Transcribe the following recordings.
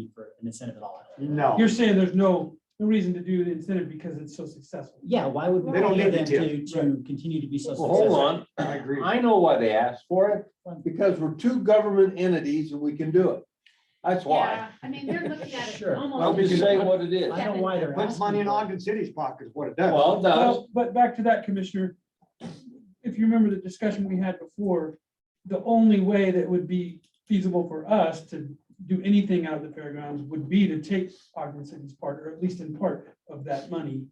an incentive at all. No, You're saying there's no, no reason to do the incentive because it's so successful. Yeah, why would we They don't pay need them to, to, to continue to be so Well, successful? hold on, I agree. I know why they asked for it, because we're two government entities and we can do it. That's why. Yeah, I mean, they're looking at it Sure. almost. I'm just saying what it is. I don't know why they're Puts asking. money in for it. Ogden City's pocket is what it does. Well, it does, Well, but back to that, Commissioner. If you remember the discussion we had before, the only way that would be feasible for us to do anything out of the fairgrounds would be to take Ogden City's part, or at least in part of that money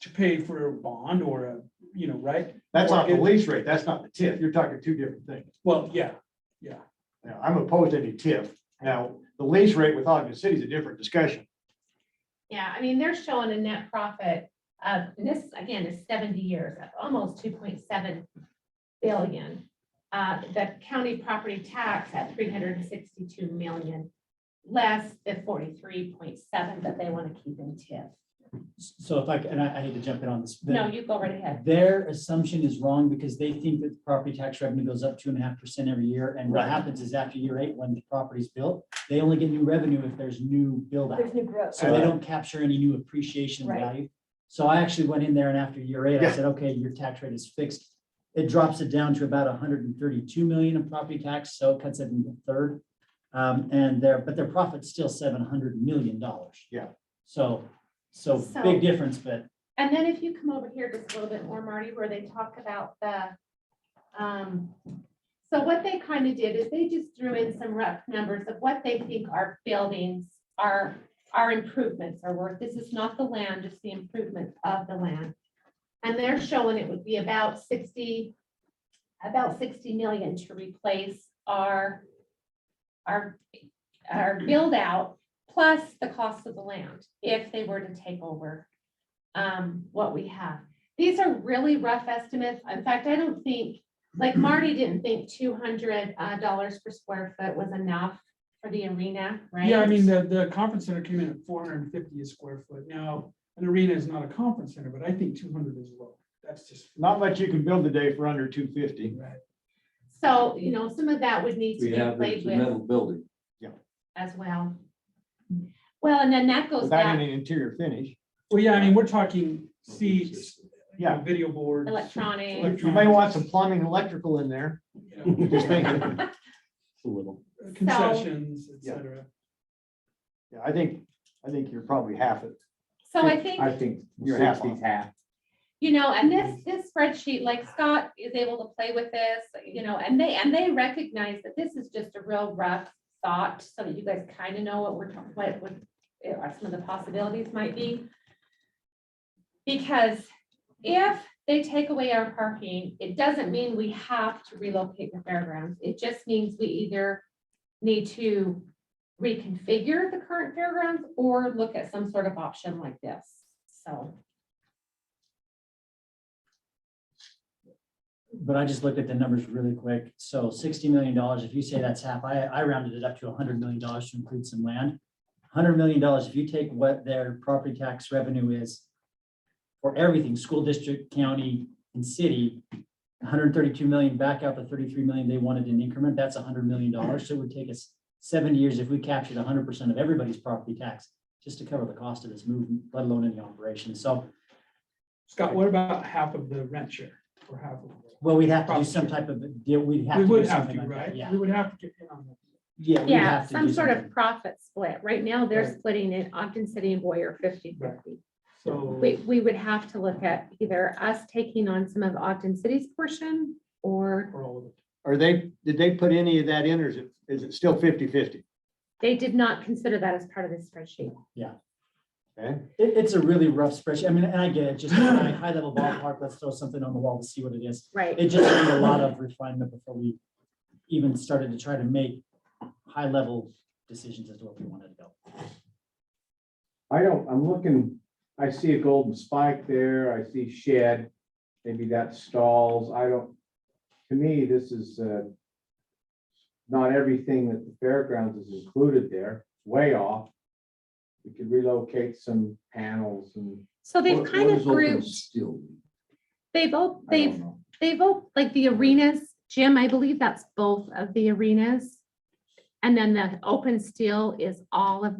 to pay for a bond or a, you know, right? That's not the lease rate. That's not the TIF. You're talking two different things. Well, yeah, Now, I'm opposed to any TIF. Now, the lease rate with Ogden City is a different discussion. Yeah, I mean, they're showing a net profit of, and this again is seventy years, of almost two point seven billion. Uh, the county property tax at three hundred and sixty-two million, less the forty-three point seven that they want to keep in TIF. So if I, c- and I, I hate to jump in on this. but No, you go right ahead. Their assumption is wrong because they think that the property tax revenue goes up two and a half percent every year. And what happens is after year eight, when the property's built, they only get new revenue if there's new build out. There's new growth. So they don't capture any new appreciation of Right. value. So I actually went in there and after year eight, I Yeah. said, okay, your tax rate is fixed. It drops it down to about hundred and thirty-two million in property tax, so it cuts it in a third. Um, and their, but their profit's still seven hundred million dollars. Yeah. So, so So- big difference, but And then if you come over here just a little bit more, Marty, where they talk about the, um, so what they kind of did is they just threw in some rough numbers of what they think our buildings, our, our improvements are worth. This is not the land, it's the improvement of the land. And they're showing it would be about sixty, about sixty million to replace our, our, our build out, plus the cost of the land, if they were to take over um, what we have. These are really rough estimates. In fact, I don't think, like Marty didn't think two hundred uh, dollars per square foot was enough for the arena, right? yeah, I mean, the, the conference center came in at four hundred and fifty a square foot. Now, an arena is not a conference center, but I think two hundred is low. That's just. Not much you can build today for under two fifty. So, you know, some of that would need to we be have this played with metal building. as well. Well, and then that goes Without back, any interior finish. Well, yeah, I mean, we're talking seats, you know, Yeah. video boards. electronic. Elec- You may want some plumbing and electrical in there. you know, Just thinking. A little. Concessions, et Yeah. cetera. Yeah, I think, I think you're probably half it. So I think, think You're half on. sixty's half. you know, and this, this spreadsheet, like Scott is able to play with this, you know, and they, and they recognize that this is just a real rough thought, so that you guys kind of know what we're, talking what, what are some of the possibilities might be. Because if they take away our parking, it doesn't mean we have to relocate the fairgrounds. It just means we either need to reconfigure the current fairgrounds or look at some sort of option like this, so. but I just looked at the numbers really quick. So sixty million dollars, if you say that's half, I, I rounded it up to hundred million dollars to include some land. Hundred million dollars, if you take what their property tax revenue is for everything, school district, county and city, hundred thirty-two million back out the thirty-three million they wanted in increment, that's hundred million dollars. So it would take us seven years if we captured hundred percent of everybody's property tax just to cover the cost of this move, let alone any operation. So Scott, what about half of the rent share or half of? it? Well, we'd have to do Probably. some type of, a deal. we'd have We to do would have something to, like that, right? yeah. We would have to get in on that. Yeah. we'd Yeah, have to some do sort of something. profit split. Right now, they're Right. splitting it Ogden City and Boyer 50-50. Right. So. We, we would have to look at either us taking on some of Ogden City's portion or for all of it. Are they, did they put any of that in or is it, is it still 50-50? they did not consider that as part of this spreadsheet. Okay, It, it's a really rough spreadsheet. I mean, and I get it, just high, high level ballpark, let's throw something on the wall to see what it is. Right. It just needed a lot of refinement before we even started to try to make high level decisions as to what we wanted to go. I don't, I'm looking, I see a golden spike there, I see shed, maybe that stalls, I don't, to me, this is, uh, not everything that the fairgrounds is included there, way off. We could relocate some panels and. So they've What- kind what of is open grouped, Still, they've, all I don't they've, know. they've, all like the arenas, Jim, I believe that's both of the arenas. And then the open steel is all of